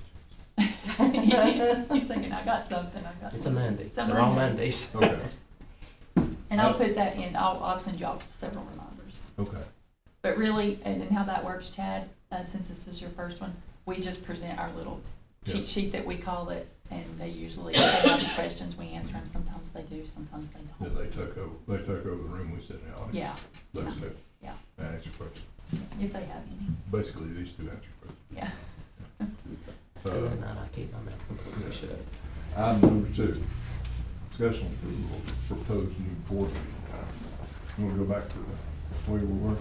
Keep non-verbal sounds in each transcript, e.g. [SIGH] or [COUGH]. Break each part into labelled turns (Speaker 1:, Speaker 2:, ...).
Speaker 1: [LAUGHS] He's thinking, I got something, I got.
Speaker 2: It's a
Speaker 1: something."
Speaker 2: Monday.
Speaker 1: It's a
Speaker 2: They're all
Speaker 1: Monday.
Speaker 2: Mondays.
Speaker 3: Okay, Uh,
Speaker 1: And I'll put that in, I'll, I'll send y'all several reminders.
Speaker 3: okay.
Speaker 1: But really, and then how that works, Chad, uh, since this is your first one, we just present our little
Speaker 3: Yeah.
Speaker 1: cheat sheet that we call it, and they usually, if they have any questions, we answer them, sometimes they do, sometimes they
Speaker 3: Yeah,
Speaker 1: don't.
Speaker 3: they took over, they took over the room we sit in, on.
Speaker 1: Yeah,
Speaker 3: Those two.
Speaker 1: Yeah.
Speaker 3: And answer questions.
Speaker 1: if they have any,
Speaker 3: Basically, these two answer questions.
Speaker 1: yeah.
Speaker 2: Other than
Speaker 3: Uh,
Speaker 2: that, I keep my mouth completely shut.
Speaker 3: Item number two, discussion approval of proposed new board meeting time. You wanna go back to the way we were?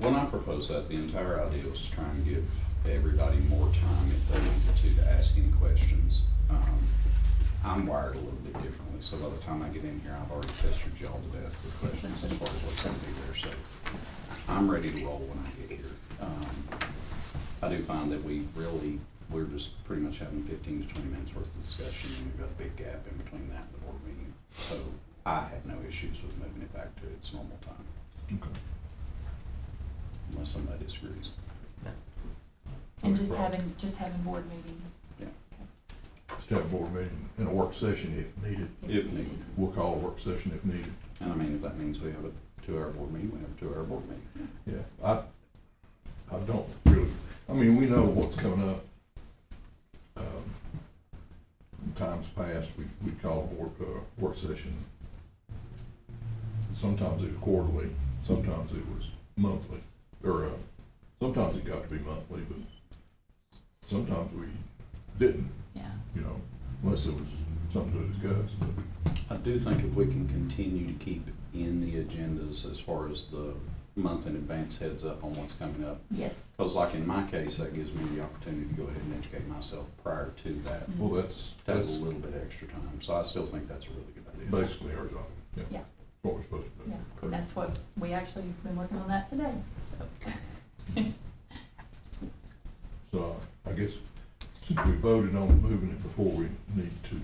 Speaker 4: When I proposed that, the entire idea was to try and give everybody more time if they wanted to, to ask any questions. Um, I'm wired a little bit differently, so by the time I get in here, I've already pestered y'all to death with questions as far as what's gonna be there, so I'm ready to roll when I get here. Um, I do find that we really, we're just pretty much having fifteen to twenty minutes worth of discussion, and we've got a big gap in between that and the board meeting. So I had no issues with moving it back to its normal time,
Speaker 3: Okay.
Speaker 4: unless somebody disagrees.
Speaker 1: And
Speaker 3: Okay,
Speaker 1: just
Speaker 3: well.
Speaker 1: having, just having board meetings.
Speaker 3: Just have a board meeting and a work session if needed.
Speaker 4: If needed.
Speaker 3: We'll call a work session if needed.
Speaker 4: And I mean, if that means we have a two-hour board meeting, we have a two-hour board meeting.
Speaker 3: Yeah, I, I don't really, I mean, we know what's coming up. Um, in Times past, we, we call a work, uh, work session. Sometimes it was quarterly, sometimes it was monthly, or, uh, sometimes it got to be monthly, but sometimes we didn't,
Speaker 1: Yeah,
Speaker 3: you know, unless it was something to discuss, but.
Speaker 4: I do think if we can continue to keep in the agendas as far as the month in advance heads up on what's coming up.
Speaker 1: yes.
Speaker 4: Because like in my case, that gives me the opportunity to go ahead and educate myself prior to that.
Speaker 1: Mhm.
Speaker 3: Well, that's,
Speaker 4: That
Speaker 3: that's
Speaker 4: was a little bit extra time, so I still think that's a really good idea.
Speaker 3: basically our job.
Speaker 1: Yeah.
Speaker 3: What we're supposed to do.
Speaker 1: Yeah, that's what, we actually have been working on that today, so.
Speaker 3: So I guess since we voted on moving it before, we need to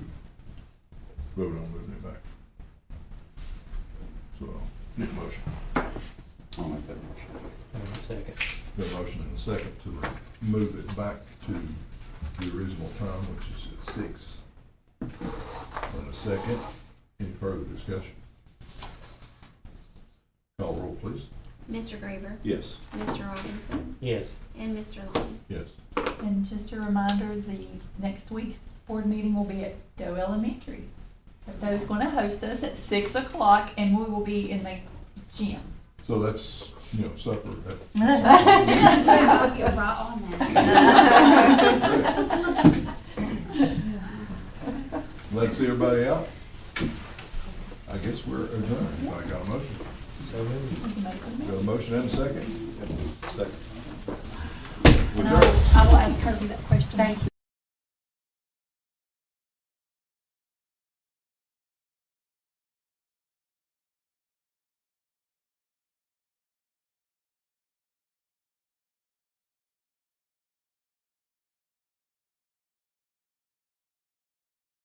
Speaker 3: vote on moving it back. So, need a motion.
Speaker 4: I'll make that motion.
Speaker 2: Hold on a second.
Speaker 3: Got a motion and a second to move it back to the original time, which is at six. And a second, any further discussion? Call roll, please.
Speaker 5: Mr. Graver,
Speaker 4: Yes.
Speaker 5: Mr. Robinson,
Speaker 2: Yes,
Speaker 5: and Mr. Long.
Speaker 3: Yes.
Speaker 1: And just a reminder, the next week's board meeting will be at Doe Elementary. So Doe's gonna host us at six o'clock and we will be in the gym.
Speaker 3: So that's, you know, supper, that
Speaker 5: You're right on that.
Speaker 3: Let's see everybody out. I guess we're adjourned. I got a motion.
Speaker 2: so moved.
Speaker 1: We can make them.
Speaker 3: Got a motion and a second.
Speaker 4: Second.
Speaker 1: And I will- I will ask Kirby that question. Thank you.